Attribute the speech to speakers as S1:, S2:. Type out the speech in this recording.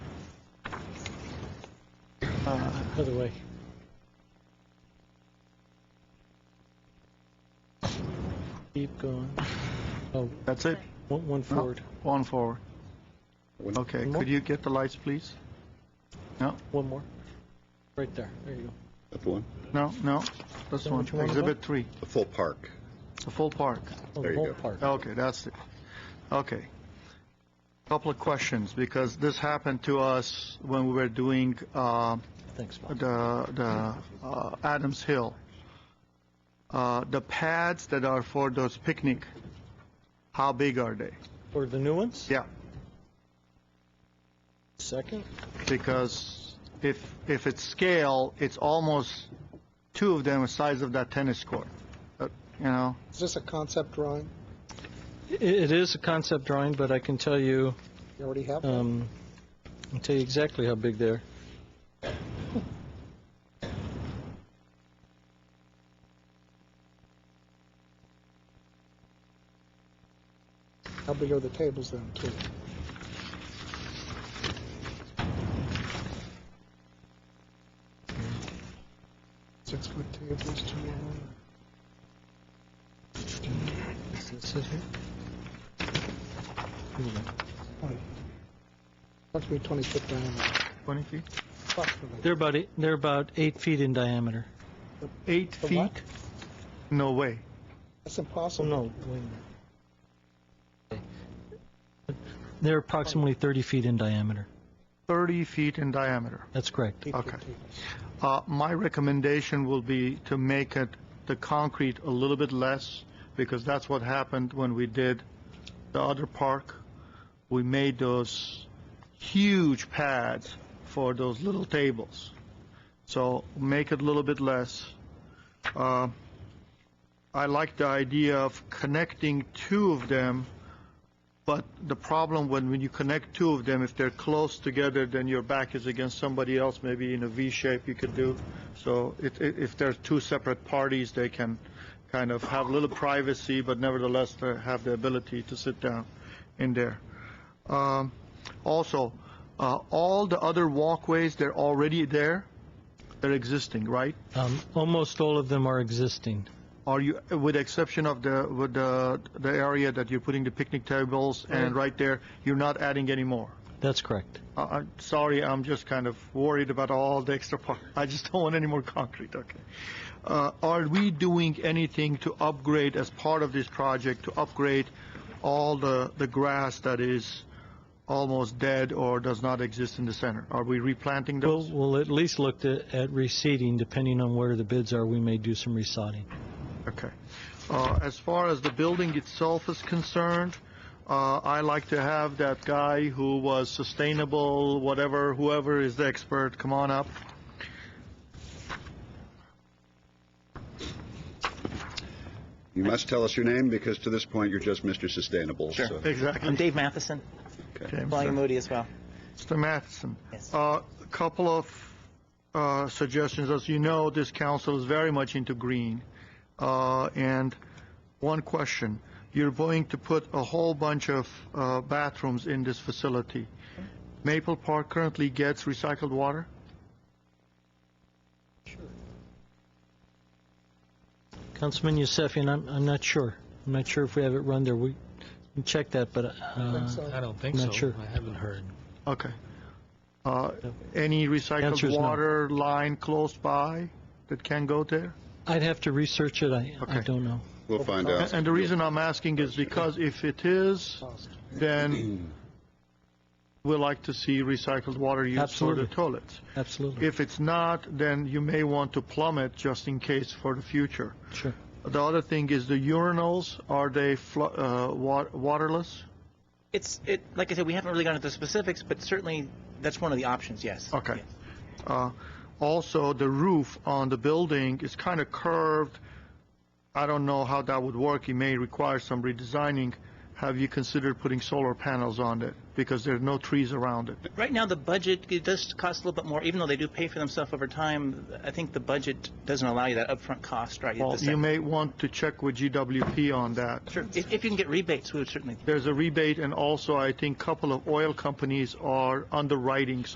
S1: uh, other way. Keep going. Oh,
S2: That's it?
S1: one, one
S2: No?
S1: forward,
S2: One forward. Okay,
S1: One more?
S2: could you get the lights, please?
S1: one more. Right there, there you go.
S3: That's one.
S2: No, no, this
S1: Is that
S2: one,
S1: what you wanted,
S2: exhibit three,
S3: The full park.
S2: the full park.
S1: Oh,
S3: There
S1: the
S3: you
S1: whole
S3: go.
S1: park.
S2: Okay, that's it. Okay. Couple of questions, because this happened to us when we were doing uh,
S1: Thanks, Bob.
S2: the the uh, Adams Hill. Uh, The pads that are for those picnic, how big are they?
S1: For the new ones?
S2: Yeah,
S1: Second?
S2: because if, if it's scale, it's almost two of them the size of that tennis court, Uh, you know?
S4: Is this a concept drawing?
S1: It, it is a concept drawing, but I can tell you,
S4: You already have one?
S1: um, I'll tell you exactly how big they're.
S4: How big are the tables then, too? Six-foot tables, two long.
S1: Does it sit here? Here we go.
S4: Twenty. Approximately 20 foot diameter.
S2: 20 feet?
S4: Approximately.
S1: They're about, eight- they're about eight feet in diameter.
S2: Eight
S4: The what?
S2: feet? No way.
S4: That's
S1: Oh,
S4: impossible.
S1: no, wait a minute. They're approximately 30 feet in diameter.
S2: 30 feet in diameter.
S1: That's correct.
S4: Eight-foot
S2: Okay.
S4: table.
S2: Uh, My recommendation will be to make it, the concrete a little bit less, because that's what happened when we did the other park. We made those huge pads for those little tables. So make it a little bit less. Uh, I like the idea of connecting two of them, but the problem when, when you connect two of them, if they're close together, then your back is against somebody else, maybe in a V shape you could do. So it, it, if there's two separate parties, they can kind of have a little privacy, but nevertheless they have the ability to sit down in there. Um, also, uh, all the other walkways, they're already there. They're existing, right?
S1: Um, Almost all of them are existing.
S2: Are you, with the exception of the, with the, the area that you're putting the picnic tables and right there, you're not adding any more?
S1: That's correct.
S2: I- I'm sorry, I'm just kind of worried about all the extra part. I just don't want any more concrete, okay? Uh, Are we doing anything to upgrade, as part of this project, to upgrade all the, the grass that is almost dead or does not exist in the center? Are we replanting
S1: We'll,
S2: those?
S1: we'll at least look at at reseeding, depending on where the bids are, we may do some resodding.
S2: Okay. Uh, As far as the building itself is concerned, uh, I like to have that guy who was sustainable, whatever, whoever is the expert, come on up.
S3: You must tell us your name, because to this point, you're just Mr. Sustainable.
S5: Sure.
S3: so-
S2: Exactly.
S5: I'm Dave Matheson,
S2: James. uh,
S5: Flying Moody as well.
S2: Mr. Matheson,
S5: Yes.
S2: a couple of uh, suggestions. As you know, this council is very much into green. Uh, And one question, you're going to put a whole bunch of uh, bathrooms in this facility. Maple Park currently gets recycled water?
S1: Councilman Yusefian, I'm, I'm not sure. I'm not sure if we have it run there. We can check that, but uh,
S4: so.
S6: I don't think
S1: Not
S6: so.
S1: sure.
S6: I haven't heard.
S2: Okay. Uh,
S1: No.
S2: Any
S1: Answer
S2: recycled
S1: is no.
S2: water line close by that can go there?
S1: I'd have to research it. I, I
S2: Okay.
S1: don't know.
S3: We'll find
S2: And
S3: out.
S2: and the reason I'm asking is because if it is,
S4: Cost.
S2: then we like to see recycled water used for the
S1: Absolutely.
S2: toilets.
S1: Absolutely.
S2: If it's not, then you may want to plumb it just in case for the future.
S1: Sure.
S2: The other thing is the urinals, are they flu- uh, wa- waterless?
S5: It's, it, like I said, we haven't really gone into the specifics, but certainly that's one of the options, yes.
S2: Okay.
S5: Yes.
S2: Uh, Also, the roof on the building is kind of curved. I don't know how that would work. It may require some redesigning. Have you considered putting solar panels on it? Because there are no trees around it.
S5: Right now, the budget, it does cost a little bit more, even though they do pay for themselves over time, I think the budget doesn't allow you that upfront cost, right? at
S2: Well,
S5: the
S2: you
S5: set.
S2: may want to check with GWP on that.
S5: Sure, if, if you can get rebates, we would certainly
S2: There's a rebate, and also, I think, couple of oil companies are underwriting